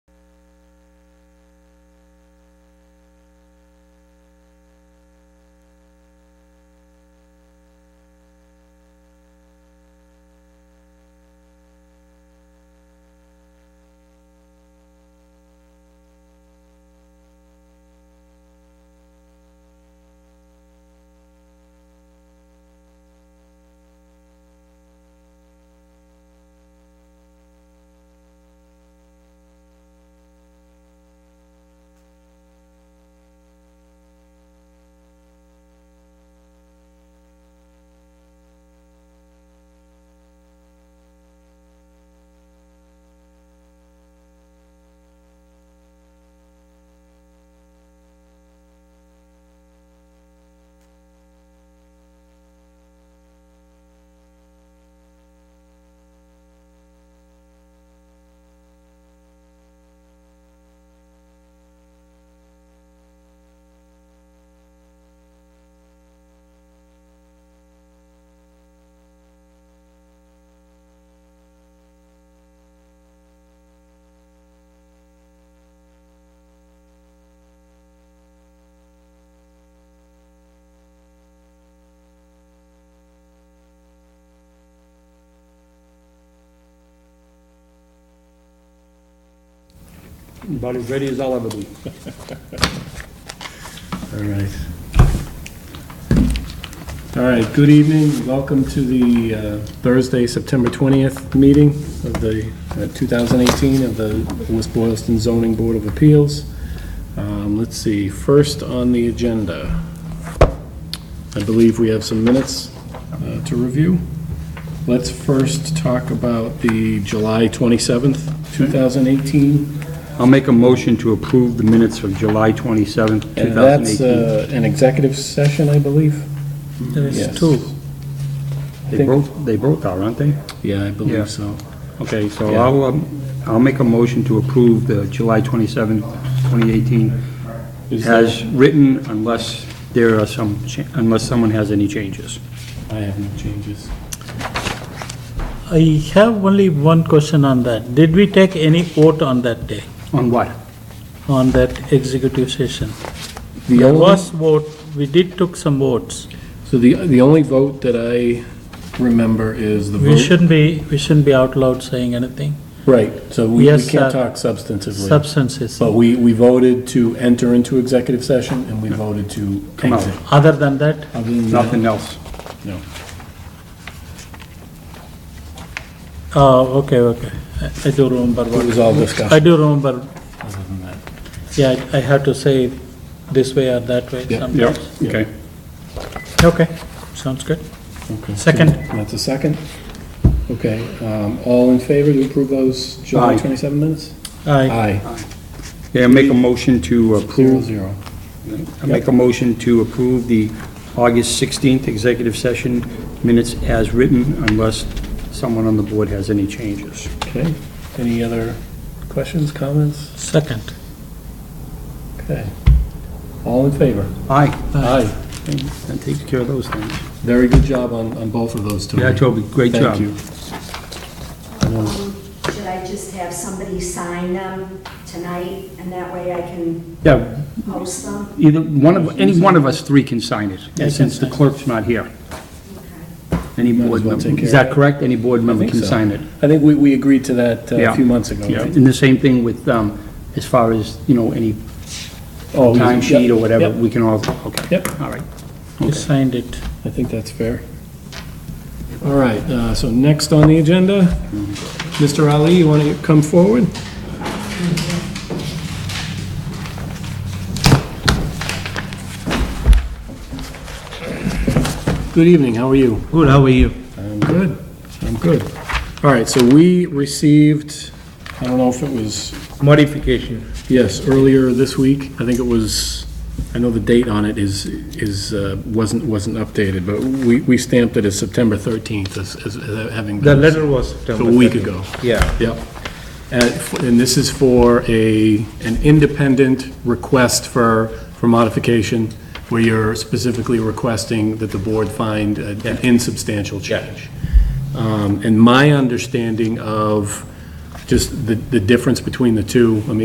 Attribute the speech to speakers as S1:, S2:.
S1: About as ready as I'll ever be.
S2: All right. All right, good evening. Welcome to the uh, Thursday, September 20th meeting of the uh, 2018 of the West Boylston Zoning Board of Appeals. Um, Let's see, first on the agenda, I believe we have some minutes uh, to review. Let's first talk about the July 27th, 2018
S1: I'll make a motion to approve the minutes of July 27th,
S2: And that's
S1: 2018.
S2: uh, an executive session, I believe? Yes.
S1: There's They
S2: think-
S1: both, they both are, aren't they?
S2: Yeah, I
S1: Yeah.
S2: believe so.
S1: Okay, so
S2: Yeah.
S1: I'll, um, I'll make a motion to approve the July 27th, 2018
S2: Is
S1: as written unless there are some, cha- unless someone has any changes.
S2: I have no changes.
S3: I have only one question on that. Did we take any vote on that day,
S1: On what?
S3: on that executive session?
S2: The
S3: There
S2: only,
S3: was vote, we did took some votes.
S2: so the, the only vote that I remember is the vote.
S3: We shouldn't be, we shouldn't be out loud saying anything.
S2: Right, so we, we
S3: Yes,
S2: can't
S3: uh,
S2: talk substantively.
S3: Substances,
S2: But we, we voted to enter into executive session and we voted to
S1: Come out.
S2: exit.
S3: other than that,
S2: Other than that,
S1: Nothing else.
S2: No.
S3: oh, okay, okay. I- I do remember
S2: It was
S3: what,
S2: all
S3: I
S2: discussion,
S3: do remember,
S2: other than that.
S3: yeah, I- I have to say it this way or that way
S2: Yeah.
S3: sometimes.
S1: Okay.
S3: Okay, sounds good.
S2: Okay.
S3: Second.
S2: That's a second. Okay, um, all in favor to approve those July
S1: Aye.
S2: 27 minutes?
S3: Aye,
S2: Aye,
S1: Yeah, make a motion to
S2: zero,
S1: approve,
S2: zero.
S1: I make a motion to approve the August 16th executive session minutes as written unless someone on the board has any changes.
S2: Okay, any other questions, comments?
S3: second.
S2: Okay. All in favor?
S1: Aye.
S2: Aye.
S1: That takes care of those things.
S2: Very good job on, on both of those, Tony.
S1: Yeah, Toby, great job.
S2: Thank you.
S4: Um, Should I just have somebody sign them tonight, and that way I can
S1: Yeah,
S4: post them?
S1: either, one of, any one of us three can sign it,
S3: Yeah, I can
S1: since the
S3: sign.
S1: clerk's not here.
S4: Okay.
S1: Any
S2: Might as
S1: board
S2: well
S1: member,
S2: take care
S1: is
S2: of
S1: that
S2: it.
S1: correct? Any board member
S2: think
S1: can
S2: so.
S1: sign it.
S2: I think we, we agreed to that uh,
S1: Yeah.
S2: a few months ago,
S1: Yeah,
S2: right?
S1: and the same thing with, um, as far as, you know, any
S2: Oh, yeah.
S1: time sheet or whatever,
S2: Yep.
S1: we can all, okay.
S2: Yep.
S1: All right.
S3: You signed it.
S2: I think that's fair. All right, uh, so next on the agenda, Mr. Ali, you want to come forward? Good evening, how are you?
S3: Good, how are you?
S2: I'm good, I'm good. All right, so we received, I don't know if it was,
S5: modification.
S2: yes, earlier this week, I think it was, I know the date on it is, is, uh, wasn't, wasn't updated, but we, we stamped it as September 13th as, as having.
S5: The
S2: been-
S5: letter was
S2: A
S5: September.
S2: week
S5: 13th.
S2: ago,
S5: Yeah,
S2: yep. And f- and this is for a, an independent request for, for modification, where you're specifically requesting that the board find a- an insubstantial change. Um, And my understanding of just the, the difference between the two, I mean,